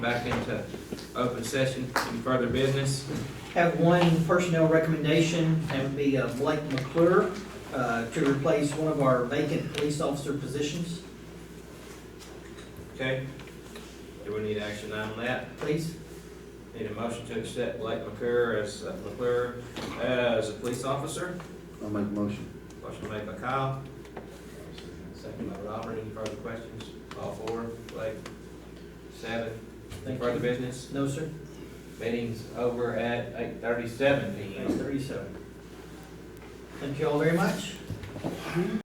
Back into open session. Any further business? Have one personnel recommendation, that would be uh, Blake McClure, uh, to replace one of our vacant police officer positions, Okay. Do we need action on that? please. Need a motion to accept Blake McClure as, uh, McClure as a police officer? I'll make a motion. Motion made by Kyle. Second by Robert. Any further questions? All four, Blake? Seven. Any Thank further you. business? No, sir. Meeting's over at eight thirty-seven P Page thirty-seven. Thank you all very much.